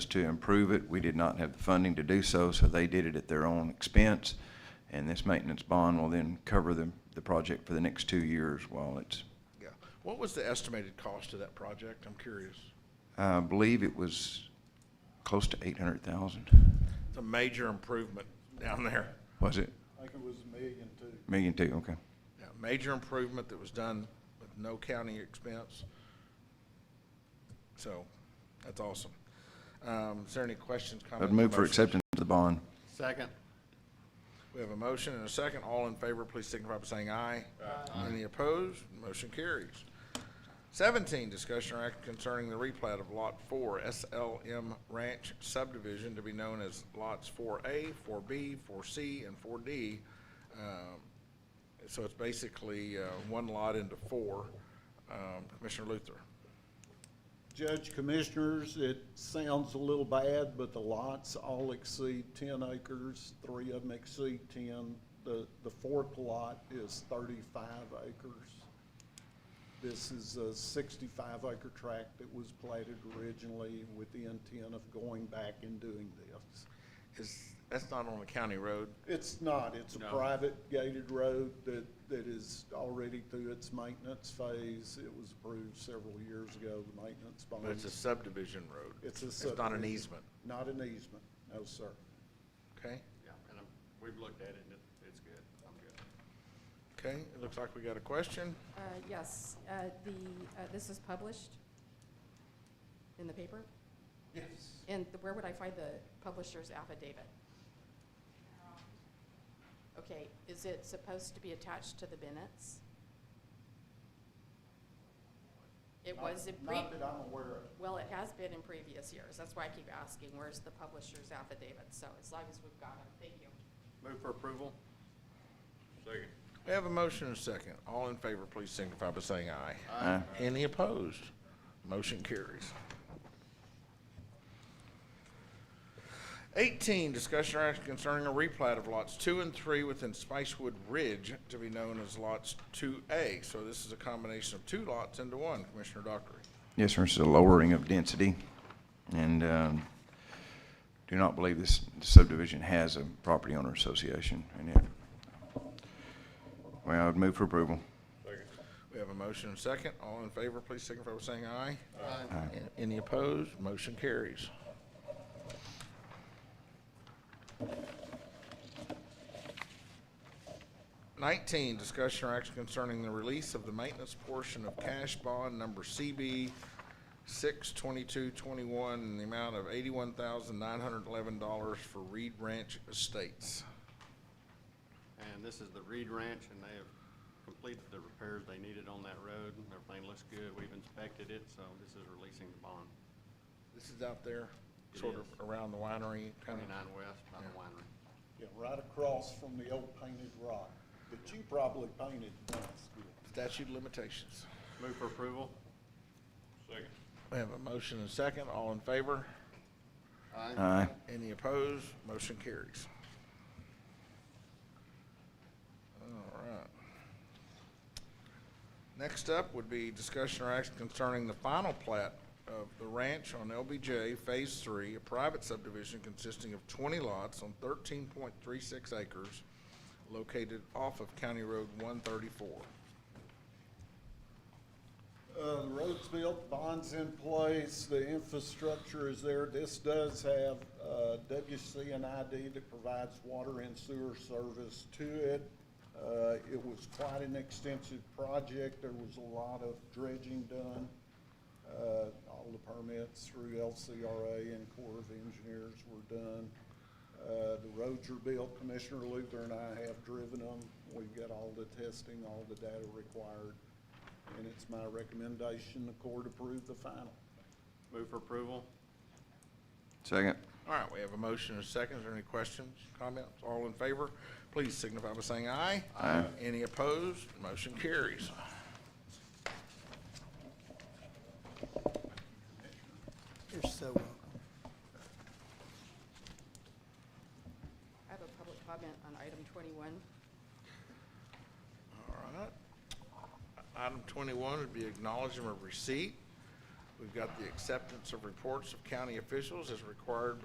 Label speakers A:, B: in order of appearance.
A: to improve it. We did not have the funding to do so, so they did it at their own expense. And this maintenance bond will then cover the, the project for the next two years while it's,
B: Yeah. What was the estimated cost of that project? I'm curious.
A: I believe it was close to eight hundred thousand.
B: It's a major improvement down there.
A: Was it?
C: I think it was a million too.
A: Million two, okay.
B: Yeah, Major improvement that was done with no county expense. So, that's awesome. Um, is there any questions, comments?
A: I'd move for
B: motions?
A: acceptance of the bond.
C: Second.
B: We have a motion and a second. All in favor, please signify by saying aye. Aye. Any opposed? Motion carries. Seventeen, discussion or act concerning the replat of Lot Four, SLM Ranch subdivision to be known as lots four A, four B, four C, and four D. Um, So it's basically, uh, one lot into four. Um, Commissioner Luther.
C: Judge Commissioners, it sounds a little bad, but the lots all exceed ten acres. Three of them exceed ten. The, the fourth lot is thirty-five acres. This is a sixty-five acre tract that was platted originally with the intent of going back and doing this.
B: Is, that's not on a county road.
C: It's not, it's a private gated road that, that is already through its maintenance phase. It was approved several years ago, the maintenance bond.
B: But it's a subdivision road.
C: It's a
B: It's not an
C: subdivision.
B: easement,
C: Not an easement, no, sir.
B: okay?
D: Yeah, and I'm, we've looked at it, and it- it's good, I'm good.
B: Okay, it looks like we got a question.
E: Uh, Yes, uh, the, uh, this is published in the paper? Yes. And th- where would I find the publisher's affidavit? Okay, is it supposed to be attached to the minutes? It was in pre,
C: Not that I'm aware of.
E: well, it has been in previous years. That's why I keep asking, where's the publisher's affidavit? So as long as we've got it, thank you.
D: Move for approval? Second.
B: We have a motion and a second. All in favor, please signify by saying aye.
A: Aye.
B: Any opposed? Motion carries. Eighteen, discussion or action concerning a replat of lots two and three within Spicewood Ridge to be known as lots two A. So this is a combination of two lots into one, Commissioner Dockery.
A: Yes, sir, it's a lowering of density, and um, do not believe this subdivision has a property owner association in it. Well, I would move for approval.
B: We have a motion and a second. All in favor, please signify by saying aye. Aye. Any opposed? Motion carries. Nineteen, discussion or action concerning the release of the maintenance portion of cash bond number CB six twenty-two twenty-one in the amount of eighty-one thousand nine hundred eleven dollars for Reed Ranch Estates.
D: And this is the Reed Ranch, and they have completed the repairs they needed on that road, and everything looks good, we've inspected it, so this is releasing the bond,
B: This is out there,
D: It
B: sort of
D: is.
B: around the winery, kind of.
D: twenty-nine west by the winery.
C: Yeah, right across from the old painted rock that you probably painted once.
B: Statute of limitations.
D: Move for approval? Second.
B: We have a motion and a second. All in favor?
D: Aye.
A: Aye.
B: Any opposed? Motion carries. All right. Next up would be discussion or action concerning the final plat of the ranch on LBJ Phase Three, a private subdivision consisting of twenty lots on thirteen point three six acres located off of County Road one thirty-four.
C: Uh, the road's built, bond's in place, the infrastructure is there. This does have, uh, WCNID that provides water and sewer service to it. Uh, it was quite an extensive project. There was a lot of dredging done. Uh, all the permits through LCRA and Corps of Engineers were done. Uh, the roads are built. Commissioner Luther and I have driven them. We've got all the testing, all the data required. And it's my recommendation the court approve the final.
D: Move for approval?
A: Second.
B: All right, we have a motion and a second. Is there any questions, comments? All in favor, please signify by saying aye. Aye. Any opposed? Motion carries.
F: You're so welcome.
E: I have a public comment on item twenty-one.
B: All right. Item twenty-one would be acknowledgement of receipt. We've got the acceptance of reports of county officials as required